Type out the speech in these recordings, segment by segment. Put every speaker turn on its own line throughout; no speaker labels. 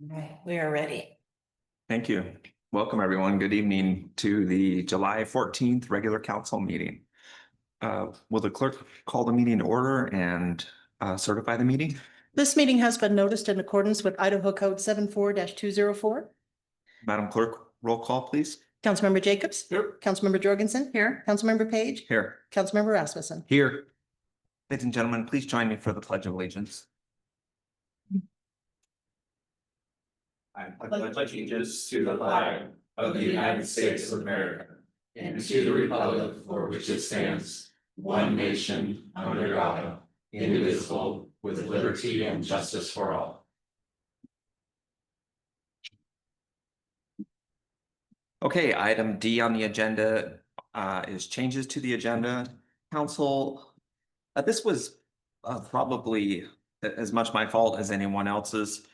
Right, we are ready.
Thank you. Welcome, everyone. Good evening to the July fourteenth regular council meeting. Uh, Will the clerk call the meeting to order and uh, certify the meeting?
This meeting has been noticed in accordance with Idaho Code 74-204.
Madam Clerk, roll call, please.
Councilmember Jacobs. Here. Councilmember Jorgensen. Here. Councilmember Page.
Here.
Councilmember Rasmussen.
Here. Ladies and gentlemen, please join me for the pledge of allegiance.
I pledge allegiance to the flag of the United States of America and to the republic for which it stands, one nation, under God, indivisible, with liberty and justice for all.
Okay, item D on the agenda uh, is changes to the agenda. Council, uh, this was uh, probably a- as much my fault as anyone else's.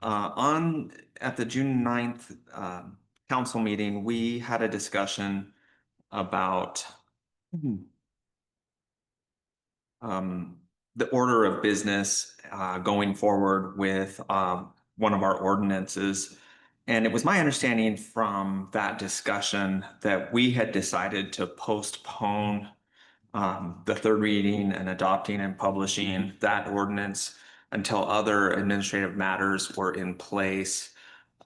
Uh, On, at the June 9th um, council meeting, we had a discussion about hmm, um, the order of business uh, going forward with um, one of our ordinances. And it was my understanding from that discussion that we had decided to postpone um, the third reading and adopting and publishing that ordinance until other administrative matters were in place.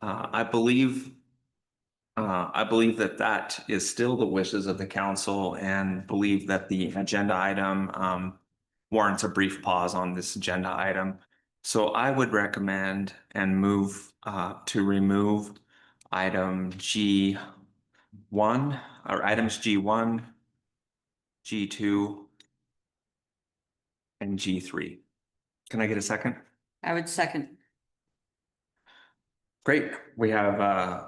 Uh, I believe uh, I believe that that is still the wishes of the council and believe that the agenda item um, warrants a brief pause on this agenda item. So I would recommend and move uh to remove item G one or items G one, G two, and G three. Can I get a second?
I would second.
Great, we have uh,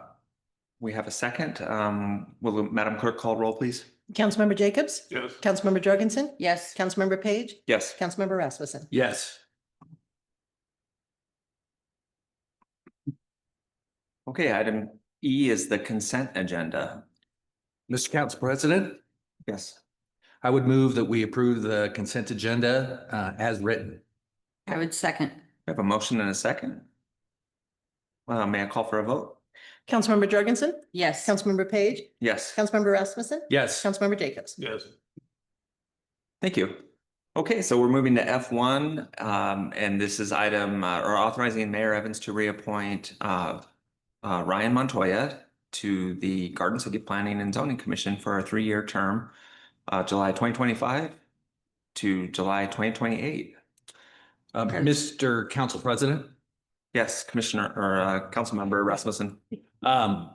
we have a second. Um, will Madam Clerk call roll, please?
Councilmember Jacobs.
Yes.
Councilmember Jorgensen.
Yes,
Councilmember Page.
Yes.
Councilmember Rasmussen.
Yes.
Okay, item E is the consent agenda.
Mr. Council President,
Yes.
I would move that we approve the consent agenda uh, as written.
I would second.
We have a motion and a second. Uh, may I call for a vote?
Councilmember Jorgensen.
Yes,
Councilmember Page.
Yes.
Councilmember Rasmussen.
Yes,
Councilmember Jacobs.
Yes.
Thank you. Okay, so we're moving to F one, um, and this is item, uh, or authorizing Mayor Evans to reappoint, uh, uh, Ryan Montoya to the Garden City Planning and Zoning Commission for a three-year term, uh, July twenty twenty-five to July twenty twenty-eight.
Uh, Mr. Council President.
Yes, Commissioner or, uh, Councilmember Rasmussen.
Um,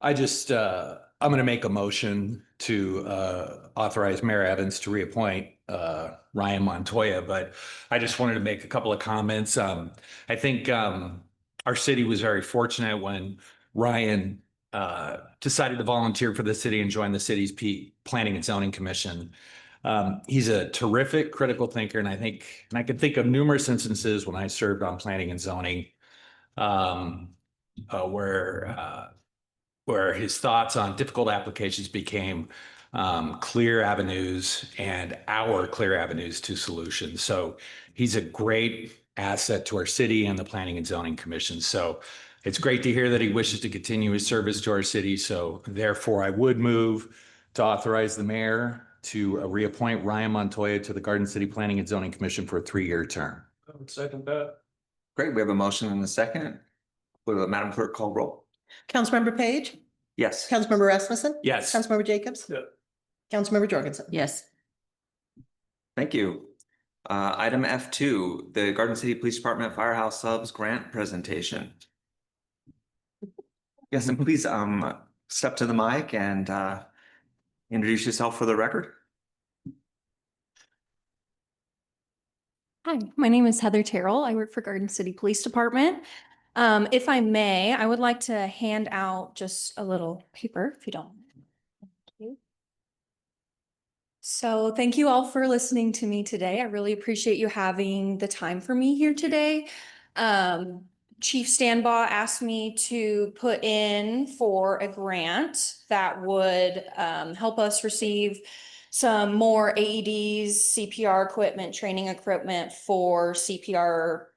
I just, uh, I'm going to make a motion to, uh, authorize Mayor Evans to reappoint, uh, Ryan Montoya, but I just wanted to make a couple of comments. Um, I think, um, our city was very fortunate when Ryan, uh, decided to volunteer for the city and join the city's P, Planning and Zoning Commission. Um, he's a terrific critical thinker, and I think, and I could think of numerous instances when I served on planning and zoning. Um, uh, where uh, where his thoughts on difficult applications became um, clear avenues and our clear avenues to solutions. So he's a great asset to our city and the Planning and Zoning Commission. So it's great to hear that he wishes to continue his service to our city. So therefore, I would move to authorize the mayor to uh, reappoint Ryan Montoya to the Garden City Planning and Zoning Commission for a three-year term.
I would second that.
Great, we have a motion and a second. Will Madam Clerk call roll?
Councilmember Page.
Yes.
Councilmember Rasmussen.
Yes.
Councilmember Jacobs.
Yeah.
Councilmember Jorgensen.
yes,
Thank you. Uh, item F two, the Garden City Police Department Firehouse Subs Grant Presentation. Yes, and please, um, step to the mic and, uh, introduce yourself for the record.
Hi, my name is Heather Terrell. I work for Garden City Police Department. Um, if I may, I would like to hand out just a little paper, if you don't. Thank you. So thank you all for listening to me today. I really appreciate you having the time for me here today. Um, Chief Stanbaugh asked me to put in for a grant that would, um, help us receive E some more AEDs, CPR equipment, training equipment for CPR